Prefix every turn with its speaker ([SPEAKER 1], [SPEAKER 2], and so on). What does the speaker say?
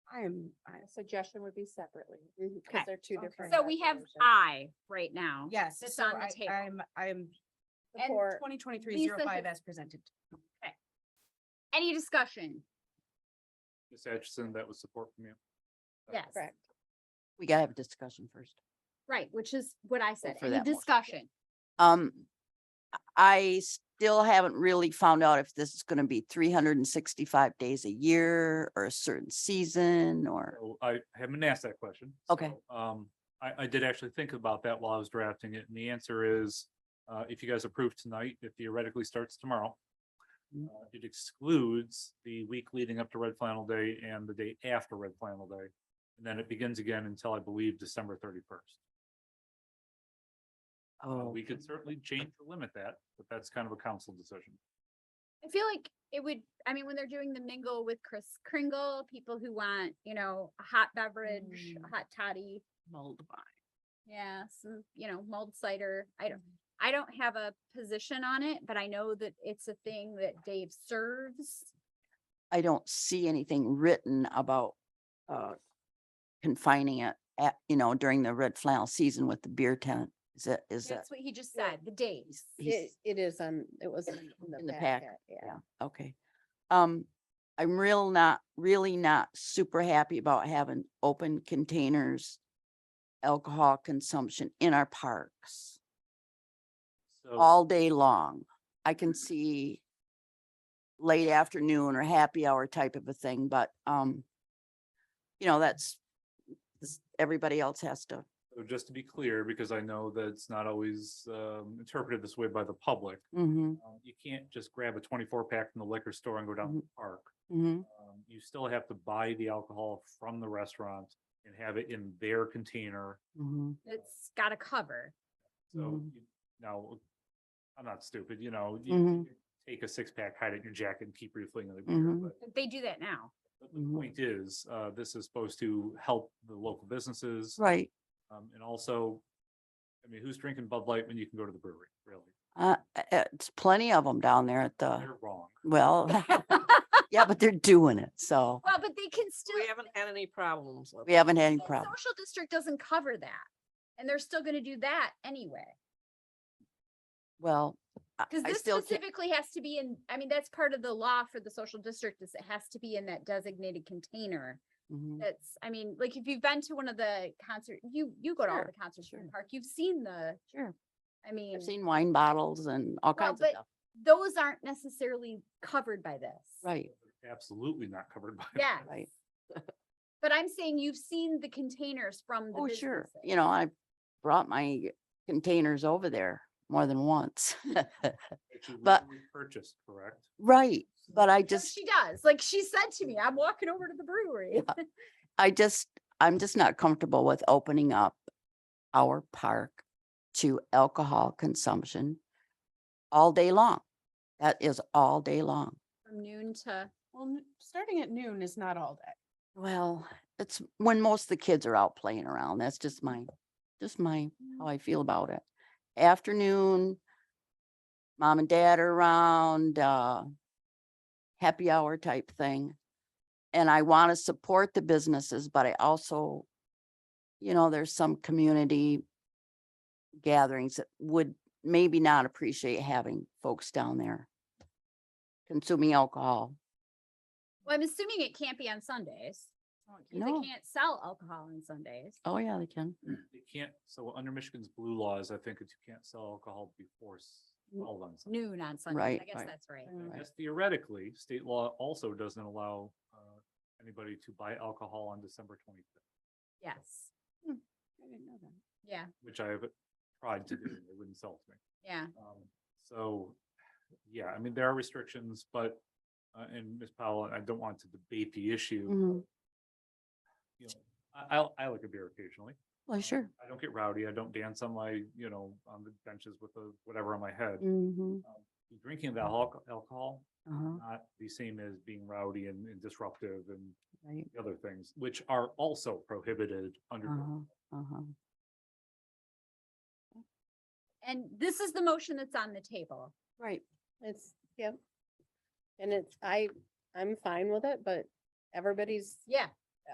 [SPEAKER 1] I am, I,
[SPEAKER 2] Suggestion would be separately.
[SPEAKER 1] mhm.
[SPEAKER 3] Okay.
[SPEAKER 2] They're two
[SPEAKER 1] Okay.
[SPEAKER 2] different.
[SPEAKER 3] So we have uh, I right now.
[SPEAKER 4] Yes.
[SPEAKER 3] It's
[SPEAKER 4] so
[SPEAKER 3] on the
[SPEAKER 4] I-
[SPEAKER 3] table.
[SPEAKER 4] I'm, I'm
[SPEAKER 3] And
[SPEAKER 2] Support.
[SPEAKER 4] twenty twenty-three zero
[SPEAKER 3] Lisa
[SPEAKER 4] five
[SPEAKER 3] has-
[SPEAKER 4] as presented.
[SPEAKER 3] Any discussion?
[SPEAKER 5] Ms. Atchison, that was support from you.
[SPEAKER 3] Yes,
[SPEAKER 2] Correct.
[SPEAKER 6] we gotta have a discussion first.
[SPEAKER 3] right, which is what I said.
[SPEAKER 6] for
[SPEAKER 3] Any
[SPEAKER 6] that motion, yeah.
[SPEAKER 3] discussion?
[SPEAKER 6] Um, I still haven't really found out if this is gonna be three hundred and sixty-five days a year or a certain season or,
[SPEAKER 5] So I haven't been asked that question.
[SPEAKER 6] Okay.
[SPEAKER 5] so, Um, I, I did actually think about that while I was drafting it, and the answer is, uh, if you guys approve tonight, it theoretically starts tomorrow.
[SPEAKER 6] Mm.
[SPEAKER 5] Uh, It excludes the week leading up to Red Flannel Day and the day after Red Flannel Day. And then it begins again until I believe December thirty-first.
[SPEAKER 6] oh,
[SPEAKER 5] We could certainly change or limit that, but that's kind of a council decision.
[SPEAKER 3] I feel like it would, I mean, when they're doing the mingle with Chris Kringle, people who want, you know, a hot beverage, a
[SPEAKER 4] Mm.
[SPEAKER 3] hot toddy.
[SPEAKER 4] Mold
[SPEAKER 3] Yeah, some, you know, mulled cider. I don't, I don't have a position on it, but I know that it's a thing that Dave serves.
[SPEAKER 6] I don't see anything written about, uh, confining it at, you know, during the red flannel season with the beer tent. Is that, is that,
[SPEAKER 3] That's what he just
[SPEAKER 2] Yeah.
[SPEAKER 3] said, the days.
[SPEAKER 6] he's-
[SPEAKER 2] It, it is, um, it was in
[SPEAKER 6] In
[SPEAKER 2] the
[SPEAKER 6] the
[SPEAKER 2] packet, yeah.
[SPEAKER 6] yeah, okay. Um, I'm real not, really not super happy about having open containers, alcohol consumption in our parks.
[SPEAKER 5] So
[SPEAKER 6] all day long. I
[SPEAKER 5] Mm.
[SPEAKER 6] can see late afternoon or happy hour type of a thing, but, um, you know, that's, this- everybody else has to,
[SPEAKER 5] so just to be clear, because I know that it's not always, um, interpreted this way by the public.
[SPEAKER 6] mm-hmm,
[SPEAKER 5] Um, You can't just grab a twenty-four pack from the liquor store and go down to the park.
[SPEAKER 6] mm-hmm,
[SPEAKER 5] Um, You still have to buy the alcohol from the restaurant and have it in their container.
[SPEAKER 6] mm-hmm.
[SPEAKER 3] It's got a cover.
[SPEAKER 5] So
[SPEAKER 6] Mhm.
[SPEAKER 5] you- now, I'm not stupid, you know, you-
[SPEAKER 6] Mhm.
[SPEAKER 5] you take a six-pack, hide it in your jacket and keep refilling the beer.
[SPEAKER 6] Mhm.
[SPEAKER 5] But
[SPEAKER 3] They do that now.
[SPEAKER 5] but
[SPEAKER 6] mm-hmm.
[SPEAKER 5] the point is, uh, this is supposed to help the local businesses.
[SPEAKER 6] Right,
[SPEAKER 5] Um, and also, I mean, who's drinking Bud Light when you can go to the brewery, really?
[SPEAKER 6] uh, uh, it's plenty of them down there at the,
[SPEAKER 5] They're wrong.
[SPEAKER 6] well, yeah, but they're doing it, so
[SPEAKER 3] Well, but they can still.
[SPEAKER 7] We haven't had any problems. with
[SPEAKER 6] we haven't had any
[SPEAKER 3] the
[SPEAKER 6] problem.
[SPEAKER 3] Social district doesn't cover that. And they're still gonna do that anyway.
[SPEAKER 6] Well, I
[SPEAKER 3] Cause
[SPEAKER 6] I
[SPEAKER 3] this
[SPEAKER 6] still, ca-
[SPEAKER 3] specifically has to be in, I mean, that's part of the law for the social district is it has to be in that designated container.
[SPEAKER 6] Mhm,
[SPEAKER 3] That's, I mean, like if you've been to one of the concert, you, you go to all
[SPEAKER 6] Sure,
[SPEAKER 3] the concerts in the
[SPEAKER 6] sure.
[SPEAKER 3] park, you've seen the,
[SPEAKER 6] sure.
[SPEAKER 3] I mean,
[SPEAKER 6] I've seen wine bottles and all kinds of
[SPEAKER 3] but-
[SPEAKER 6] stuff,
[SPEAKER 3] those aren't necessarily covered by this.
[SPEAKER 6] right,
[SPEAKER 5] Absolutely not covered by.
[SPEAKER 3] Yeah,
[SPEAKER 6] right.
[SPEAKER 3] but I'm saying you've seen the containers from the
[SPEAKER 6] Oh, sure.
[SPEAKER 3] businesses.
[SPEAKER 6] You know, I brought my containers over there more than once.
[SPEAKER 5] that you
[SPEAKER 6] But-
[SPEAKER 5] legally Purchased, correct?
[SPEAKER 6] Right, but I
[SPEAKER 3] So
[SPEAKER 6] just,
[SPEAKER 3] She does, like she said to me, I'm walking over to the brewery.
[SPEAKER 6] I just, I'm just not comfortable with opening up our park to alcohol consumption all day long. That is all day long.
[SPEAKER 3] From noon to.
[SPEAKER 4] Well, n- starting at noon is not all day.
[SPEAKER 6] Well, it's when most of the kids are out playing around. That's just my, just my, how I feel about it. Afternoon, mom and dad are around, uh, happy hour type thing. And I want to support the businesses, but I also, you know, there's some community gatherings that would maybe not appreciate having folks down there consuming alcohol.
[SPEAKER 3] Well, I'm assuming it can't be on Sundays. 'cause
[SPEAKER 6] No.
[SPEAKER 3] They can't sell alcohol on Sundays.
[SPEAKER 6] Oh, yeah, they can.
[SPEAKER 5] They can't, so under Michigan's blue laws, I think that you can't sell alcohol before s-
[SPEAKER 6] Mm.
[SPEAKER 5] twelve on Sunday.
[SPEAKER 3] Noon on Sundays. I
[SPEAKER 6] Right,
[SPEAKER 3] guess
[SPEAKER 6] right. Mm.
[SPEAKER 3] that's right.
[SPEAKER 5] I
[SPEAKER 6] right.
[SPEAKER 5] guess theoretically, state law also doesn't allow uh, anybody to buy alcohol on December twenty-fifth,
[SPEAKER 3] Yes.
[SPEAKER 4] I didn't know that.
[SPEAKER 3] Yeah,
[SPEAKER 5] which I have tried to do, and they wouldn't sell to me.
[SPEAKER 3] yeah.
[SPEAKER 5] Um, So, yeah, I mean, there are restrictions, but, uh, and Ms. Powell, I don't want to debate the issue.
[SPEAKER 6] Mhm.
[SPEAKER 5] you know, I, I'll- I like a beer occasionally.
[SPEAKER 6] Well,
[SPEAKER 5] Um,
[SPEAKER 6] sure.
[SPEAKER 5] I don't get rowdy. I don't dance on my, you know, on the benches with a, whatever on my head.
[SPEAKER 6] Mm-hmm.
[SPEAKER 5] The Drinking of alcohol, alcohol,
[SPEAKER 6] Uh-huh.
[SPEAKER 5] not the same as being rowdy and and disruptive and
[SPEAKER 6] Right.
[SPEAKER 5] the other things, which are also prohibited under. the-
[SPEAKER 6] Uh-huh. Uh-huh.
[SPEAKER 3] And this is the motion that's on the table.
[SPEAKER 6] Right.
[SPEAKER 2] It's, yep. And it's, I, I'm fine with it, but everybody's
[SPEAKER 3] Yeah,